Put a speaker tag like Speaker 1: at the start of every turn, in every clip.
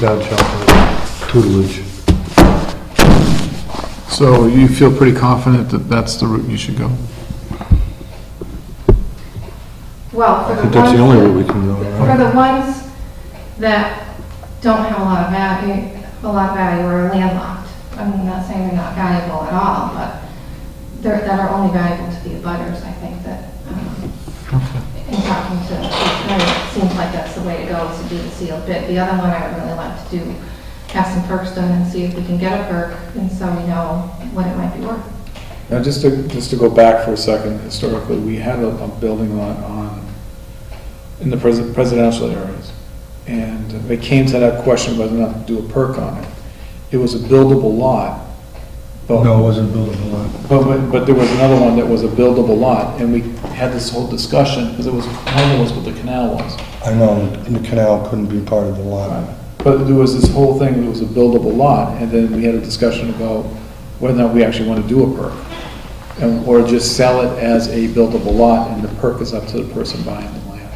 Speaker 1: God shelter, tutelage. So you feel pretty confident that that's the route you should go?
Speaker 2: Well, for
Speaker 1: I
Speaker 2: the
Speaker 1: think that's the only route we
Speaker 2: ones,
Speaker 1: can go.
Speaker 2: for
Speaker 1: right?
Speaker 2: the ones that don't have a lot of value, a lot of value or are landlocked, I'm not saying they're not valuable at all, but they're, that are only valuable to the abutters, I think that, um, in talking to, it seems like that's the way to go, is to do the sealed bid. The other one I would really like to do, have some perks done and see if we can get a perk, and so we know what it might be worth.
Speaker 3: Now, just to, just to go back for a second, historically, we had a, a building lot on, in the pres- presidential areas. And they came to that question whether or not to do a perk on it. It was a buildable lot, but.
Speaker 4: No, it wasn't buildable lot.
Speaker 3: But- But, but there was another one that was a buildable lot, and we had this whole discussion, because it was homeless what the canal was.
Speaker 4: I know, and the canal couldn't be part of the lot.
Speaker 3: But there was this whole thing, it was a buildable lot, and then we had a discussion about whether or not we actually want to do a perk, and- or just sell it as a buildable lot, and the perk is up to the person buying the land.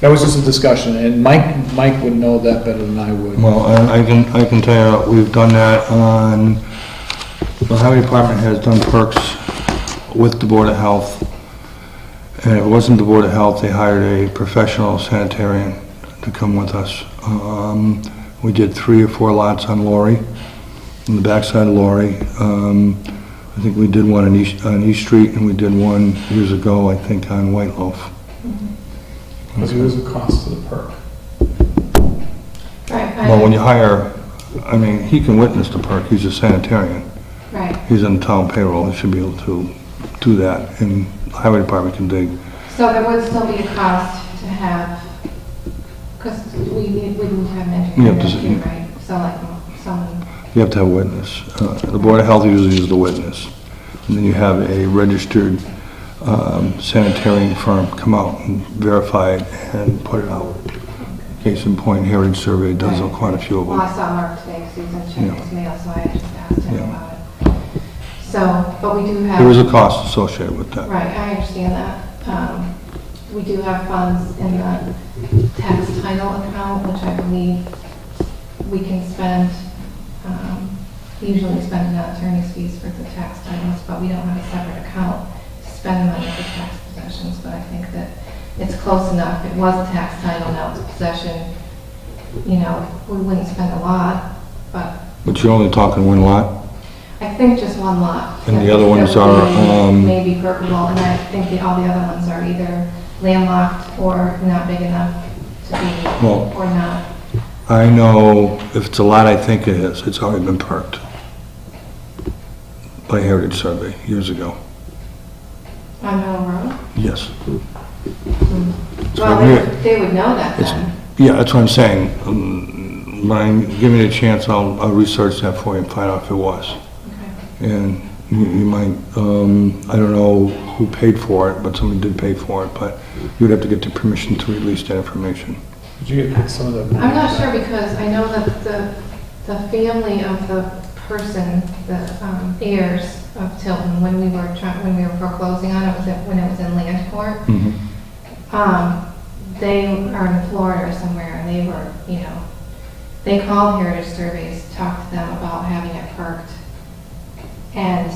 Speaker 3: That was just a discussion, and Mike, Mike would know that better than I would.
Speaker 4: Well, I I can, I can tell you, we've done that on, the highway department has done perks with the Board of Health. And it wasn't the Board of Health, they hired a professional sanitarian to come with us. Um, We did three or four lots on Lori, on the backside of Lori. Um, I think we did one on East, on East Street, and we did one years ago, I think, on White Loaf.
Speaker 3: Because there was a cost to the perk.
Speaker 2: Right,
Speaker 4: Well, when you
Speaker 2: I,
Speaker 4: hire, I mean, he can witness the perk, he's a sanitarian,
Speaker 2: right.
Speaker 4: he's on town payroll, he should be able to do that, and the highway department can dig.
Speaker 2: So there would still be a cost to have, because we need, we need to have an
Speaker 4: Yeah,
Speaker 2: engineer
Speaker 4: does it-
Speaker 2: here, right? So like, someone,
Speaker 4: You have to have a witness. Uh, The Board of Health usually is the witness. And then you have a registered um, sanitarian firm come out and verify it and put it out. Case in point, Heritage Survey does quite a few of
Speaker 2: well,
Speaker 4: them.
Speaker 2: I saw Mark today, because he was in
Speaker 4: Yeah.
Speaker 2: checking his mail, so I just asked him
Speaker 4: Yeah.
Speaker 2: about it. So, but we do have.
Speaker 4: There is a cost associated with that.
Speaker 2: Right, I understand that. Um, We do have funds in the tax title account, which I believe we can spend, um, usually spend on attorney's fees for the tax titles, but we don't have a separate account to spend money for tax possessions, but I think that it's close enough. It was a tax title, now it's a possession. You know, we wouldn't spend a lot, but
Speaker 4: But you're only talking one lot?
Speaker 2: I think just one lot.
Speaker 4: And the other ones are, um,
Speaker 2: Maybe permeable, and I think the, all the other ones are either landlocked or not big enough to be,
Speaker 4: Well,
Speaker 2: or not.
Speaker 4: I know if it's a lot I think it is, it's already been perked by Heritage Survey years ago.
Speaker 2: On Middle Road?
Speaker 4: Yes.
Speaker 2: Well,
Speaker 4: right
Speaker 2: they
Speaker 4: here.
Speaker 2: would- they would know that
Speaker 4: It's-
Speaker 2: then.
Speaker 4: Yeah, that's what I'm saying. Um, When I'm given a chance, I'll, I'll research that for you and find out if it was.
Speaker 2: Okay.
Speaker 4: And you you might, um, I don't know who paid for it, but somebody did pay for it, but you'd have to get the permission to release that information.
Speaker 3: Did you get some of the?
Speaker 2: I'm not sure because I know that the, the family of the person, the um, heirs of Tilton, when we were trying, when we were foreclosing on it, was it, when it was in land court, Um, they are in Florida or somewhere, and they were, you know, they called Heritage Surveys, talked to them about having it perked, and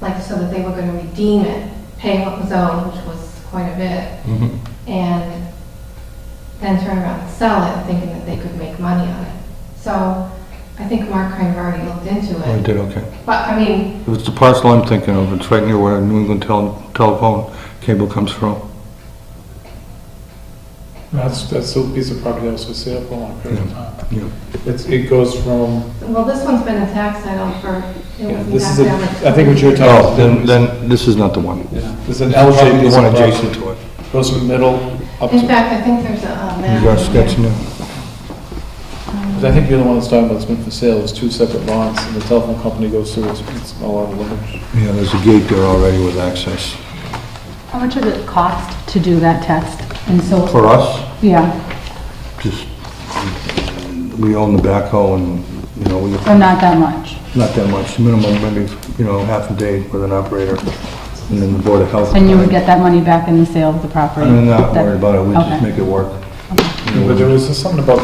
Speaker 2: like, so that they were gonna redeem it, pay what was owed, which was quite a bit, and then turn around and sell it, thinking that they could make money on it. So, I think Mark kind of already looked into
Speaker 4: Oh, I
Speaker 2: it,
Speaker 4: did, okay.
Speaker 2: but, I mean,
Speaker 4: If it's the parcel I'm thinking of, it's right near where New England tel- telephone cable comes from.
Speaker 3: That's, that's still a piece of property that was for sale for a long period of time.
Speaker 4: Yeah.
Speaker 3: It's, it goes from,
Speaker 2: well, this one's been a tax title for, it
Speaker 3: Yeah,
Speaker 2: was
Speaker 3: this
Speaker 2: tax
Speaker 3: is a-
Speaker 2: title for
Speaker 3: I think what you're talking-
Speaker 4: Oh, then, then this is not the one.
Speaker 3: there's an elevated
Speaker 4: The
Speaker 3: piece of
Speaker 4: one
Speaker 3: property.
Speaker 4: adjacent to it.
Speaker 3: Goes from middle up
Speaker 2: In
Speaker 3: to,
Speaker 2: fact, I think there's a uh, map.
Speaker 4: You got a
Speaker 2: in here.
Speaker 4: sketch now?
Speaker 3: because I think you're the one that's talking about it's been for sale, it's two separate lots, and the telephone company goes through, it's, it's all out of limits.
Speaker 4: Yeah, there's a gate there already with access.
Speaker 5: How much does it cost to do that test? And so,
Speaker 4: For us,
Speaker 5: yeah,
Speaker 4: just, we own the backhoe and, you know, we,
Speaker 5: so not that much.
Speaker 4: not that much, minimum, maybe, you know, half a day with an operator, and then the Board of Health.
Speaker 5: And you would get that money back in the sale of the property?
Speaker 4: I'm not
Speaker 5: That-
Speaker 4: worried about it, we just
Speaker 5: Okay.
Speaker 4: make it work.
Speaker 3: But there was something about